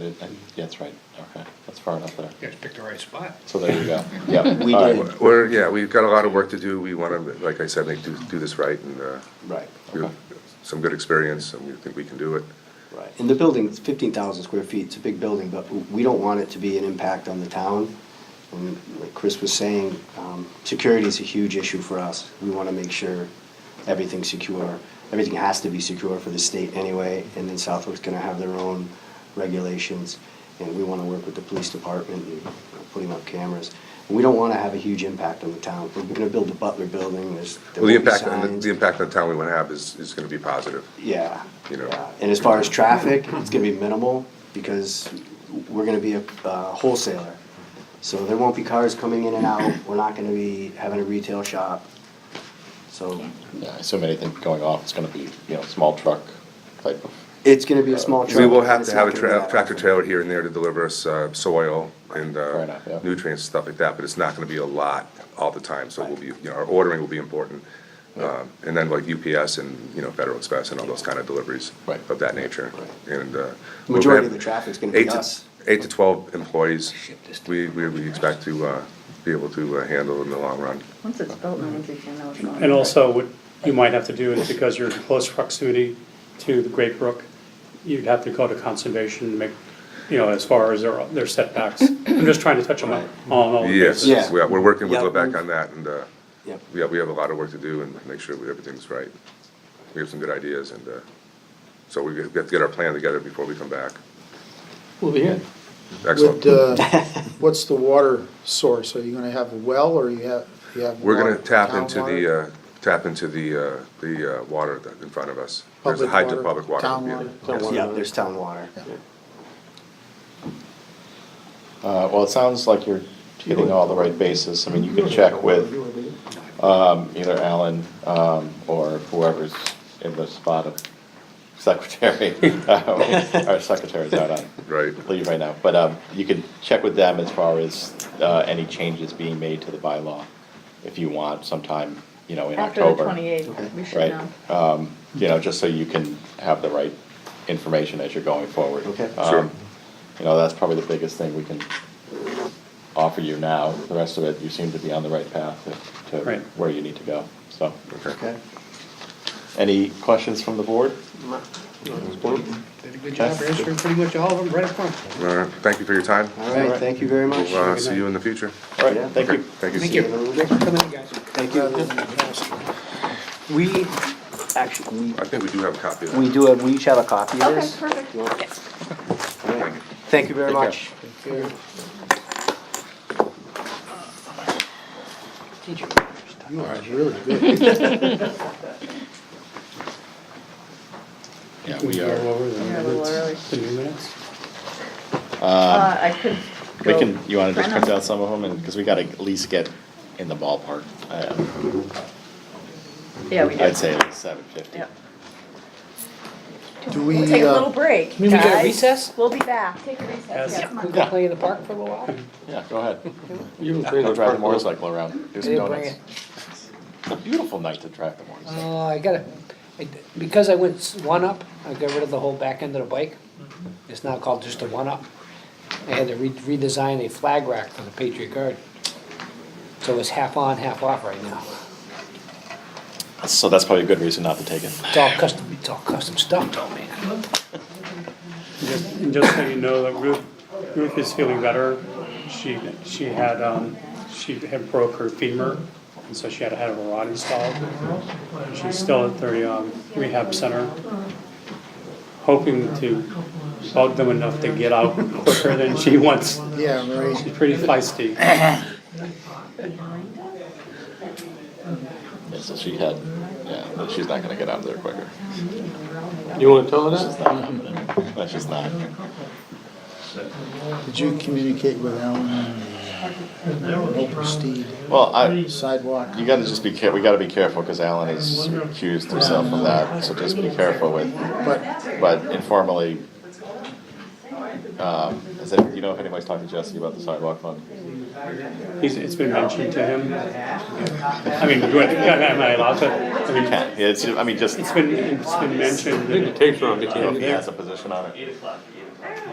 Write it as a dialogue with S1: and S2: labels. S1: Uh, That's right, okay, that's far enough there.
S2: You guys picked the right spot.
S1: So there you go, yeah.
S3: We
S1: all
S3: did.
S1: right,
S4: We're, yeah, we've got a lot of work to do. We want to, like I said, like, do, do this right and, uh,
S3: Right,
S4: we have some good experience and we think we can do it.
S3: right. And the building's fifteen thousand square feet, it's a big building, but w- we don't want it to be an impact on the town. And like Chris was saying, um, security's a huge issue for us. We wanna make sure everything's secure. Everything has to be secure for the state anyway, and then Southwick's gonna have their own regulations. And we wanna work with the police department and putting up cameras. And we don't wanna have a huge impact on the town. We're gonna build the Butler Building, there's. there
S4: Well, the
S3: won't be
S4: impact, on the-
S3: signs.
S4: the impact on the town we want to have is, is going to be positive.
S3: Yeah.
S4: You know.
S3: yeah. And as far as traffic, it's gonna be minimal because we're gonna be a uh, wholesaler. So there won't be cars coming in and out. We're not gonna be having a retail shop. So
S1: Yeah, I assume anything going off, it's gonna be, you know, small truck type of,
S3: it's gonna be a small truck.
S4: We will have
S3: It's
S4: to
S3: not
S4: have a
S3: gonna be
S4: tra-
S3: that
S4: tractor
S3: often.
S4: trailer here and there to deliver us, uh, soil and,
S1: Fair
S4: uh,
S1: enough, yeah.
S4: nutrients, stuff like that, but it's not going to be a lot all the time. So we'll be, you know, our ordering will be important. Um, and then like UPS and, you know, Federal Express and all those kind of deliveries
S1: Right.
S4: of that nature. And, uh. we'll
S3: Majority of
S4: have-
S3: the traffic's gonna
S4: eight
S3: be
S4: to-
S3: us.
S4: Eight to twelve employees,
S2: Ship this
S4: we, we, we expect to, uh, be able to uh, handle in the long run.
S5: Once it's built, no one's even know what's going on.
S6: And also, what you might have to do is because you're in close proximity to the Great Brook, you'd have to go to conservation and make, you know, as far as their, their setbacks. I'm just trying to touch them up on all the
S4: Yes,
S6: bases.
S3: Yeah.
S4: we are, we're working with
S3: Yeah.
S4: Lebec on that, and, uh,
S3: Yep.
S4: yeah, we have a lot of work to do and make sure that everything's right. We have some good ideas, and, uh, so we have to get our plan together before we come back.
S7: Well, yeah,
S4: Excellent.
S7: with, uh, what's the water source? Are you gonna have a well, or you have, you have?
S4: We're gonna
S7: water-
S4: tap
S7: town
S4: into
S7: water?
S4: the, uh, tap into the, uh, the, uh, water that- in front of us. There's a
S7: Public
S4: hydro-
S7: water,
S4: Public water.
S7: town
S4: yeah.
S7: water.
S4: Yes.
S3: Yeah, there's town water.
S1: uh, well, it sounds like you're hitting all the right bases, I mean, you can check with, um, either Alan, um, or whoever's in the spot of secretary. Uh, Our secretary's out on
S4: Right.
S1: leave right now, but, um, you can check with them as far as, uh, any changes being made to the bylaw, if you want, sometime, you know, in
S5: After
S1: October.
S5: the twenty-eighth, we should
S1: right?
S5: know.
S1: Um, you know, just so you can have the right information as you're going forward.
S3: Okay.
S1: Um,
S4: Sure.
S1: You know, that's probably the biggest thing we can offer you now. The rest of it, you seem to be on the right path to- to
S6: Right.
S1: where you need to go, so.
S3: Okay.
S1: Any questions from the board?
S2: Did a good job, answering pretty much all of them right up front.
S4: All right, thank you for your time.
S3: All right, thank you very much.
S4: We'll, uh, see you in the future.
S1: All right,
S3: Yeah.
S1: thank
S4: Okay,
S1: you.
S4: Thank you.
S2: Thank you. Thanks for coming in, guys.
S3: Thank you. We, actually,
S4: I think we do have a copy of
S3: we, we
S4: that.
S3: do have, we each have a copy of
S5: Okay,
S3: this.
S5: perfect. Yes.
S3: All right. Thank you very
S1: Take care.
S3: much.
S7: You are really good.
S1: Yeah,
S6: We
S1: we
S6: go
S1: are,
S6: over the
S5: Yeah, a little early.
S6: minutes, the new minutes.
S5: Uh, I could
S1: we
S5: go-
S1: can, you wanna just
S5: Why
S1: print
S5: not?
S1: out some of them, and, because we gotta at least get in the ballpark. Uh,
S5: Yeah, we do.
S1: I'd say it's seven fifty.
S5: Yeah.
S7: Do
S5: We'll take
S7: we,
S5: a little
S7: uh,
S5: break,
S8: You mean we get a
S5: guys.
S8: recess?
S5: We'll be back. Take a recess,
S6: Yes.
S5: yeah.
S8: We can play in the park for a little while.
S1: Yeah, go ahead.
S7: you
S1: Go drive the motorcycle around, do some
S8: didn't bring
S1: donuts. It's a beautiful night to drive the motorcycle.
S8: Uh, I gotta, I- because I went s- one up, I got rid of the whole back end of the bike.
S2: Mm-hmm.
S8: It's now called just a one up. I had to re- redesign a flag rack for the Patriot Guard. So it's half on, half off right now.
S1: So that's probably a good reason not to take it.
S8: It's all custom, it's all custom stuff though, man.
S6: Just- And just so you know, that Ruth, Ruth is feeling better. She, she had, um, she had broke her femur, and so she had to have a rod installed. And She's still at the um, rehab center, hoping to bug them enough to get out quicker than she wants.
S7: yeah, right.
S6: She's pretty feisty.
S1: Yeah, so she had, yeah, but she's not gonna get out of there quicker.
S9: You wanna tell her
S1: It's
S9: that?
S1: not happening. That's just not.
S7: Did you communicate with Alan and uh, Open Steed
S1: Well, I,
S7: sidewalk?
S1: you gotta just be care, we gotta be careful, cause Alan has accused himself of that, so just be careful with,
S7: But,
S1: but informally. Um, is it, you know if anybody's talked to Jesse about the sidewalk fund?
S6: He's, it's been mentioned to him. I mean, do I, am I allowed to? I mean,
S1: Yeah, it's, I mean, just, I
S6: It's been, it's been mentioned.
S9: It takes her on
S1: don't know if
S9: vacation.
S1: he has a position on it.